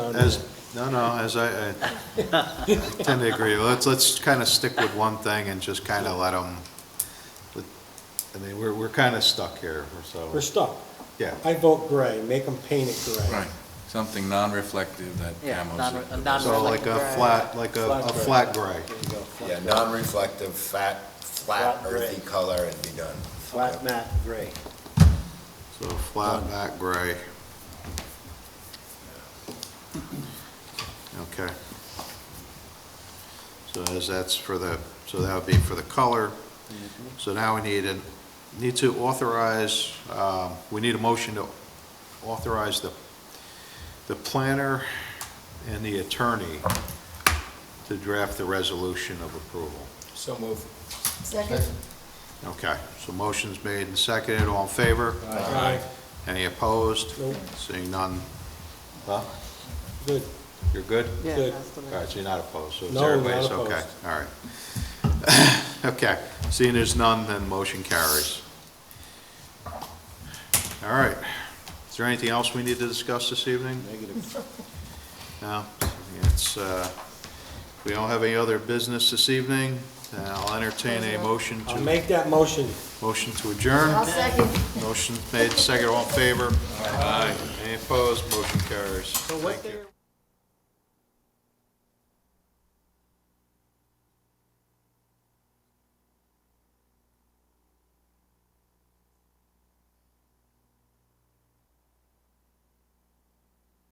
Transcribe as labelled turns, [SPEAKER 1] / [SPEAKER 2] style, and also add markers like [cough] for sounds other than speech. [SPEAKER 1] don't do
[SPEAKER 2] As,
[SPEAKER 1] that.
[SPEAKER 2] no, no, as I, I I tend to agree. Let's, let's kind of stick with one thing and just kind of let them, I mean, we're, we're kind of stuck here,
[SPEAKER 1] We're
[SPEAKER 2] so,
[SPEAKER 1] stuck.
[SPEAKER 2] yeah.
[SPEAKER 1] I vote gray, make them paint it gray.
[SPEAKER 3] Right, something non-reflective that
[SPEAKER 4] Yeah,
[SPEAKER 3] camos.
[SPEAKER 4] non- non-
[SPEAKER 2] So like a
[SPEAKER 4] gray.
[SPEAKER 2] flat, like a, a flat gray.
[SPEAKER 1] There you go, flat
[SPEAKER 5] Yeah,
[SPEAKER 1] gray.
[SPEAKER 5] non-reflective, fat, flat,
[SPEAKER 1] Flat gray.
[SPEAKER 5] earthy color and be done.
[SPEAKER 1] Flat matte gray.
[SPEAKER 2] So flat back gray. Okay. So as that's for the, so that would be for the color. So now we need an, need to authorize, um, we need a motion to authorize the, the planner and the attorney to draft the resolution of approval.
[SPEAKER 3] So move.
[SPEAKER 6] Second?
[SPEAKER 2] Okay, so motion's made and seconded, all in favor?
[SPEAKER 1] Aye.
[SPEAKER 2] Any opposed?
[SPEAKER 1] Nope.
[SPEAKER 2] Seeing none? Huh?
[SPEAKER 1] Good.
[SPEAKER 2] You're good?
[SPEAKER 4] Yeah,
[SPEAKER 1] Good.
[SPEAKER 4] that's the
[SPEAKER 2] All right, so you're not opposed, so it's
[SPEAKER 1] No, not
[SPEAKER 2] everybody's okay,
[SPEAKER 1] opposed.
[SPEAKER 2] all right. [laughs] Okay, seeing there's none, then motion carries. All right, is there anything else we need to discuss this evening?
[SPEAKER 1] Negative.
[SPEAKER 2] No, it's, uh, if we don't have any other business this evening, then I'll entertain a motion
[SPEAKER 1] I'll
[SPEAKER 2] to,
[SPEAKER 1] make that motion.
[SPEAKER 2] motion to adjourn.
[SPEAKER 6] I'll second.
[SPEAKER 2] Motion made, second, all in favor? Aye. Any opposed? Motion carries. Thank you.